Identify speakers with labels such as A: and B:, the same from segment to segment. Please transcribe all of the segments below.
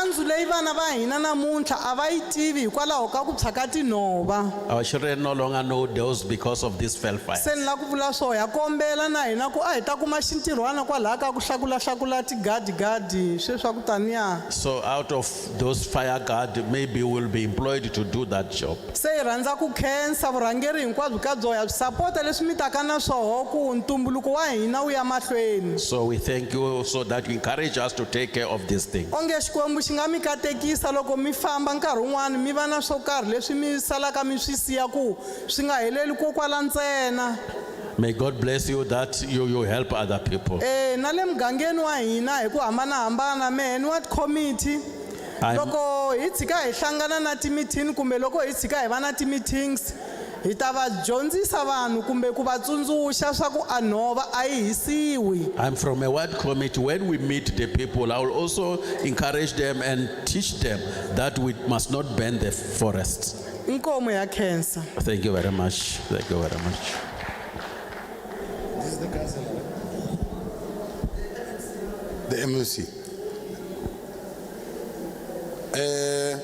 A: nandzu leyi vana va hina namuntlha a va yi tivi hikwalaho ka ku tshwa ka tinhova
B: Our children no longer know those because of this fell fire.
A: se ni la ku vula swo ha kombela na hina ku a hi ta kuma xintirhwana kwalaha ka ku hlakulahlakula tigadigadi sweswi swa ku taniya
B: So out of those fire guard, maybe will be employed to do that job.
A: se hi rhandza ku khensa vurhangeri hinkwabyo ka byo ya swi sapota leswi mi taka na swoho ku ntumbuluko wa hina wu ya mahlweni
B: So we thank you so that you encourage us to take care of this thing.
A: onge xikwembu xi nga mi katekisa loko mi famba nkarhi wun'wani mi va na swo karhi leswi mi salaka mi swi siya ku swi nga heleli kokwala ntsena
B: May God bless you that you, you help other people.
A: Eh, na le mugangeni wa hina hi ku hambanahambana meheni wa committee
B: I'm,
A: loko hi tshika hi hlangana na timithini kumbe loko hi tshika hi va na ti-meetings hi ta va dyondzisa vanhu kumbe ku va tsundzuxa swa ku a nhova a yi hisiwi
B: I'm from a ward committee. When we meet the people, I will also encourage them and teach them that we must not burn the forest.
A: inkomo ya khensa
B: Thank you very much. Thank you very much.
C: the MLC. Eh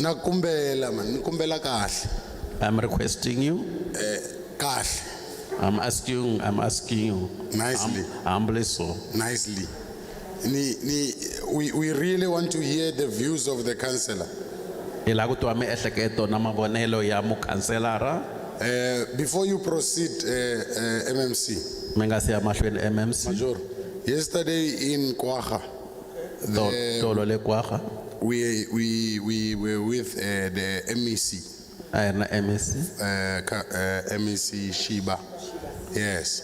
C: na kumbela man ni kumbela kahle
B: I'm requesting you.
C: kahle
B: I'm asking. I'm asking you.
C: nicely
B: Humbly so.
C: nicely ni ni we we really want to hear the views of the councillor
B: Hi lava ku twa miehleketo na mavonelo ya mukhanselara
C: eh before you proceed eh, eh MMC
B: mi nga si ya mahlweni mmc
C: major yesterday in Kwaga
B: to- tolo le kwaga
C: we we we were with uh, the MEC
B: a hi ri na mmc
C: uh, ca- uh, MEC Shiba. Yes.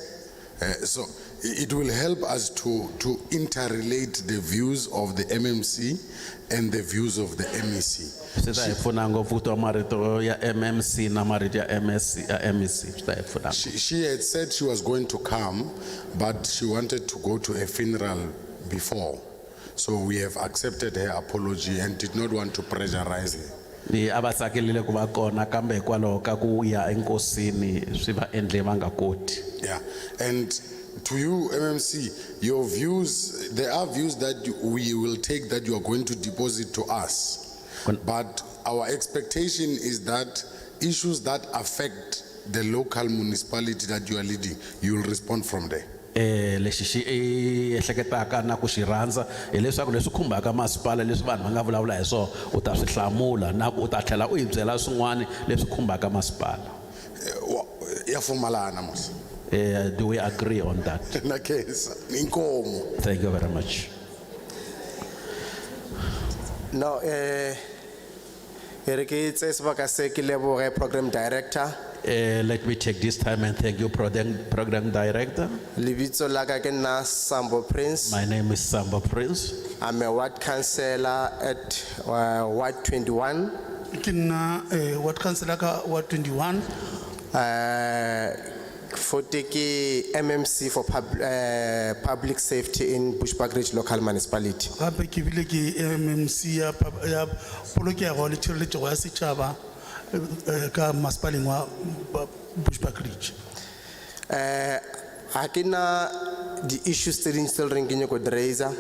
C: Uh, so i- it will help us to, to interrelate the views of the MMC and the views of the E MEC.
B: swi ta e hi pfuna ngopfu ku twa marito ya mmc na marito ya msc ya mec swi ta e hi pfuna
C: She, she had said she was going to come, but she wanted to go to a funeral before. So we have accepted her apology and did not want to pressurize her.
B: leyi a va tsakelile ku va kona kambe hikwalaho ka ku ya enkosini swi va endle va nga koti
C: Yeah, and to you, MMC, your views, there are views that you- we will take that you are going to deposit to us.
B: Con-
C: But our expectation is that issues that affect the local municipality that you are leading, you will respond from there.
B: um lexi xi i ehleketaka na ku xi rhandza hileswaku leswi khumbaka masipala leswi vanhu va nga vulavula hi swona u ta swi hlamula na ku u ta tlhela u hi byela swin'wana leswi khumbaka masipala
C: Eh, wa- ya pfumalana musi.
B: Uh, do we agree on that?
C: Na khensa, inkomo.
B: Thank you very much.
D: Now, eh, Eriki, it's Esbaka Sekilebo, Program Director.
B: Uh, let me take this time and thank you, Program, Program Director.
D: Libitso laka ke nna Sambo Prince.
B: My name is Samba Prince.
D: I'm a ward councillor at uh, Ward 21.
E: ke nna eh, ward councillor ka ward 21
D: Uh, Forty ke MMC for pub, uh, public safety in Bushbuck Ridge local municipality.
E: gape ke bile ke mmc ya pa- ya polokego le tshireletsego ya setšhaba eh, eh, ka masepaleng wa Ba- bushbuck ridge
D: Uh, ha ke na di issues tse ding tse loreng ke nyako di raiser.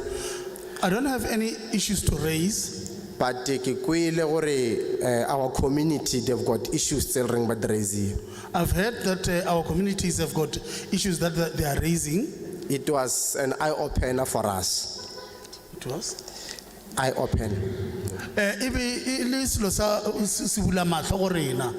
E: i don't have any issues to raise
D: but eh, ke kwele gore eh, our community they've got issues tse loreng ba di raise-ile.
E: i've heard that uh, our communities have got issues that that they are raising
D: It was an eye opener for us.
E: to us
D: Eye open.
E: Eh, e be e le selo sa se se bula matlho go rena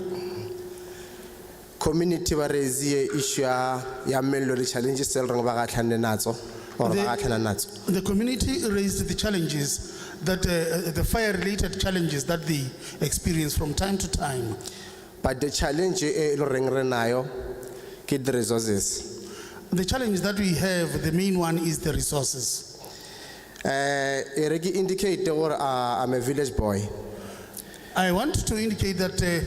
D: Community ba raise issue ya ya mello le challenges tse loreng ba gatlhane natso or
E: The-
D: ba gatlhana natso.
E: the community raised the challenges that uh, the fire related challenges that they experience from time to time
D: But the challenge e loreng re nayo ke the resources.
E: The challenge that we have, the main one is the resources.
D: Eh e re ke indicate gore ah, I'm a village boy.
E: I want to indicate that uh,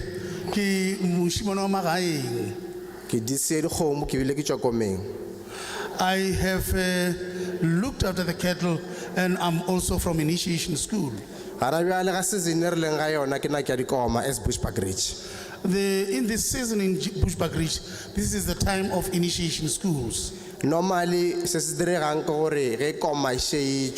E: ke moshimane wa magaeng.
D: Ke dise dikgomo ke bile ke tswa komeng.
E: I have uh, looked after the cattle and I'm also from initiation school.
D: Hara bjale ga season e re leng ga yona ke na ke ya dikoma as Bushbuck Ridge.
E: The, in this season in J- Bushbuck Ridge, this is the time of initiation schools.
D: Normally se se diregang ke gore ge koma e she e